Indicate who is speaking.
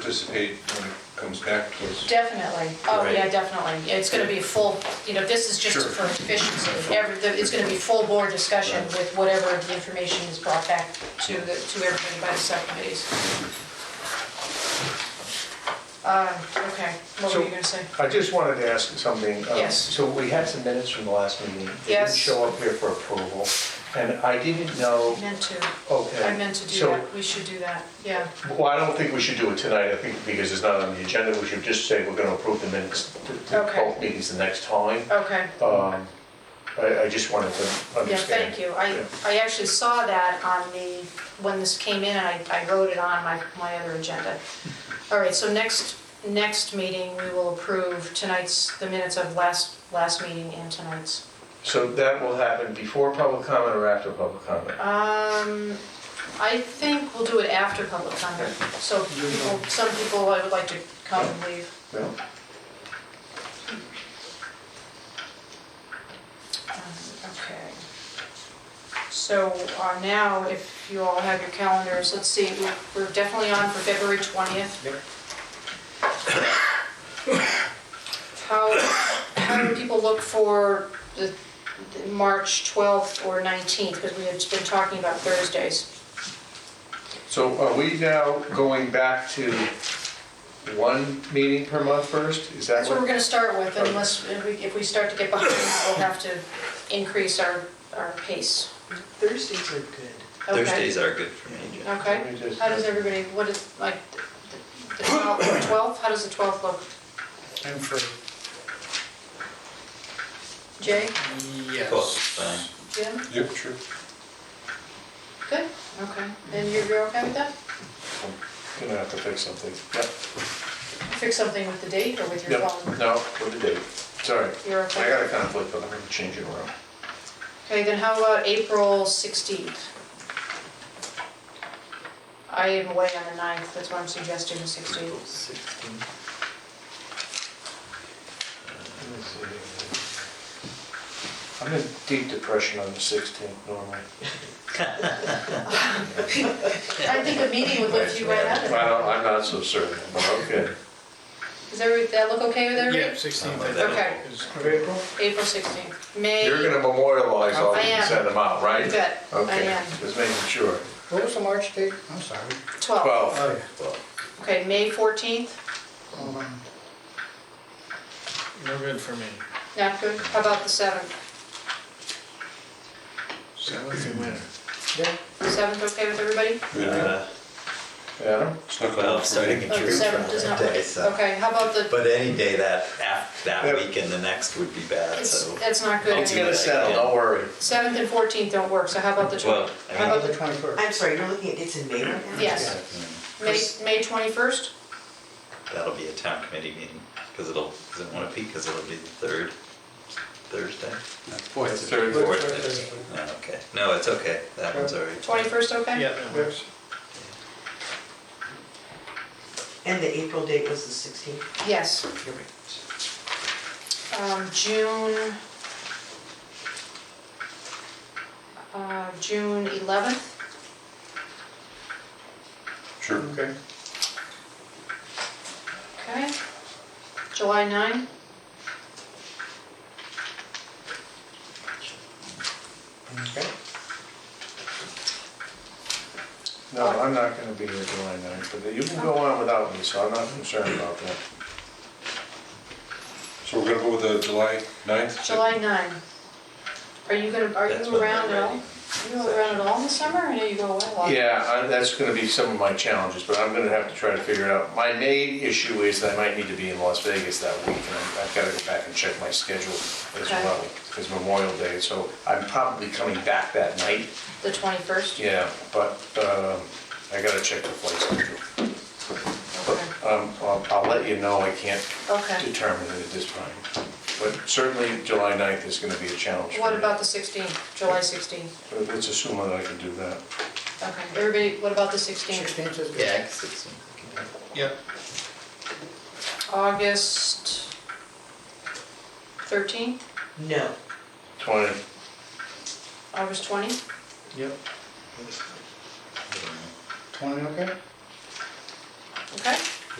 Speaker 1: participate when it comes back to us.
Speaker 2: Definitely, oh,
Speaker 3: Right.
Speaker 2: yeah, definitely. It's gonna be a full, you know, this is just
Speaker 3: Sure.
Speaker 2: for efficiency. Every, the- it's gonna be full board discussion with whatever the information is brought back to the, to everybody by the subcommittees. Uh, okay, what were you gonna say?
Speaker 4: I just wanted to ask something. Um,
Speaker 2: Yes.
Speaker 4: So we had some minutes from the last meeting. They
Speaker 2: Yes.
Speaker 4: didn't show up here for approval, and I didn't know,
Speaker 2: I meant to,
Speaker 4: okay.
Speaker 2: I meant to do
Speaker 4: so-
Speaker 2: that, we should do that, yeah.
Speaker 4: Well, I don't think we should do it tonight, I think, because it's not on the agenda, we should just say we're gonna approve the minutes to- to
Speaker 2: Okay.
Speaker 4: both meetings the next time.
Speaker 2: Okay,
Speaker 4: Um, I, I just wanted to
Speaker 2: yeah,
Speaker 4: understand.
Speaker 2: thank you. I, I actually saw that on the, when this came in, and I, I wrote it on my, my other agenda. All right, so next, next meeting, we will approve tonight's, the minutes of last, last meeting and tonight's.
Speaker 4: So that will happen before public comment or after public comment?
Speaker 2: Um, I think we'll do it after public comment, so people, some people I would like to come and leave.
Speaker 4: No?
Speaker 2: Um, Okay. So uh, now, if you all have your calendars, let's see, we're- we're definitely on for February 20th.
Speaker 4: Yep.
Speaker 2: How, how do people look for the the March 12th or 19th? Because we have been talking about Thursdays.
Speaker 4: So are we now going back to one meeting per month first? Is that
Speaker 2: That's what we're
Speaker 4: what?
Speaker 2: going to start with unless, if we- if we start to get behind, we'll have to increase our, our pace.
Speaker 5: Thursdays are good.
Speaker 2: Okay.
Speaker 3: Thursdays are good for me, Jeff.
Speaker 2: Okay.
Speaker 4: Let me just-
Speaker 2: How does everybody, what is, like, the 12th, how does the 12th look?
Speaker 5: I'm free.
Speaker 2: Jay,
Speaker 3: Twelve, fine.
Speaker 2: Jim,
Speaker 1: Yep, sure.
Speaker 2: good, okay, and you're, you're okay with that?
Speaker 4: Gonna have to fix something. Yep.
Speaker 2: Fix something with the date or with your
Speaker 4: No,
Speaker 2: phone?
Speaker 4: no, what the date? Sorry.
Speaker 2: You're
Speaker 4: I got
Speaker 2: okay.
Speaker 4: a conflict, but I'm gonna change it around.
Speaker 2: Okay, then how about April 16th? I am away on the 9th, that's why I'm suggesting the 16th.
Speaker 5: Sixteen.
Speaker 4: I'm in deep depression on the 16th normally.
Speaker 2: I think a meeting would lift you right out of it.
Speaker 4: Well, I'm not so certain, but okay.
Speaker 2: Does every, that look okay with everybody?
Speaker 6: Yeah,
Speaker 3: Oh,
Speaker 6: 16th. I think,
Speaker 2: Okay,
Speaker 6: is-
Speaker 5: Of April?
Speaker 2: April 16th, May,
Speaker 4: You're gonna memorialize all
Speaker 2: Oh, I
Speaker 4: these and
Speaker 2: am.
Speaker 4: send them out, right?
Speaker 2: you bet, I
Speaker 4: Okay,
Speaker 2: am,
Speaker 4: just making sure.
Speaker 5: What was the March date? I'm sorry.
Speaker 2: 12th.
Speaker 4: 12,
Speaker 5: Oh,
Speaker 2: Okay, May 14th,
Speaker 5: yeah. Um,
Speaker 6: No good for me.
Speaker 2: not good, how about the 7th?
Speaker 6: Seventh and winter.
Speaker 5: yeah.
Speaker 2: 7th okay with everybody?
Speaker 3: Uh,
Speaker 4: Adam?
Speaker 1: Snuck
Speaker 3: Well,
Speaker 1: around
Speaker 3: I'm
Speaker 1: for me.
Speaker 3: starting to
Speaker 2: Oh,
Speaker 3: droop
Speaker 2: seven
Speaker 3: from
Speaker 2: does
Speaker 3: that
Speaker 2: not
Speaker 3: day,
Speaker 2: work.
Speaker 3: so.
Speaker 2: Okay, how about the,
Speaker 3: But any day that, af-
Speaker 4: Yeah.
Speaker 3: that week and the next would be bad,
Speaker 2: it's-
Speaker 3: so.
Speaker 2: that's not good.
Speaker 3: It's gonna-
Speaker 4: worry.
Speaker 2: 7th and 14th don't work, so how about the
Speaker 3: Well,
Speaker 2: 20th?
Speaker 3: I
Speaker 2: How
Speaker 5: How
Speaker 2: about
Speaker 5: about the
Speaker 2: the,
Speaker 5: 21st?
Speaker 7: I'm sorry, you're looking at, it's in May right now?
Speaker 2: yes, May, May 21st?
Speaker 3: hmm, That'll be a town committee meeting, because it'll, because it won't be, because it'll be the third Thursday?
Speaker 1: That's third.
Speaker 3: Fourth
Speaker 5: Thursday.
Speaker 3: Thursday. No, okay. No, it's okay. That one's already.
Speaker 2: 21st okay?
Speaker 6: Yeah, that works.
Speaker 7: And the April date was the 16th?
Speaker 2: Yes.
Speaker 7: You're right.
Speaker 2: Um, June, uh, June 11th,
Speaker 1: Sure.
Speaker 4: Okay.
Speaker 2: okay? July 9th?
Speaker 4: No, I'm not gonna be here July 9th, but you can go on without me, so I'm not concerned about that.
Speaker 1: So we're gonna go with the July 9th?
Speaker 2: July 9th. Are you gonna, are
Speaker 3: That's
Speaker 2: you
Speaker 3: when
Speaker 2: around
Speaker 3: they're
Speaker 2: at all?
Speaker 3: ready.
Speaker 2: Are you around at all this summer, I know you go away a lot?
Speaker 4: Yeah, I- that's gonna be some of my challenges, but I'm gonna have to try to figure it out. My main issue is that I might need to be in Las Vegas that week, and I- I've gotta go back and check my schedule as
Speaker 2: Okay.
Speaker 4: well, because Memorial Day, so I'm probably coming back that night,
Speaker 2: The 21st?
Speaker 4: yeah, but um, I gotta check the flight schedule.
Speaker 2: Okay.
Speaker 4: Um, I'll I'll let you know, I can't
Speaker 2: Okay,
Speaker 4: determine it at this time, but certainly July 9th is gonna be a challenge for me.
Speaker 2: what about the 16th, July 16th?
Speaker 4: But Let's assume that I can do that.
Speaker 2: Okay, everybody, what about the 16th?
Speaker 5: 16th is good.
Speaker 3: Yeah, sixteen.
Speaker 6: Yep.
Speaker 2: August 13th,
Speaker 7: No,
Speaker 4: 20,
Speaker 2: August 20th?
Speaker 6: Yep. Twenty, okay?
Speaker 2: Okay,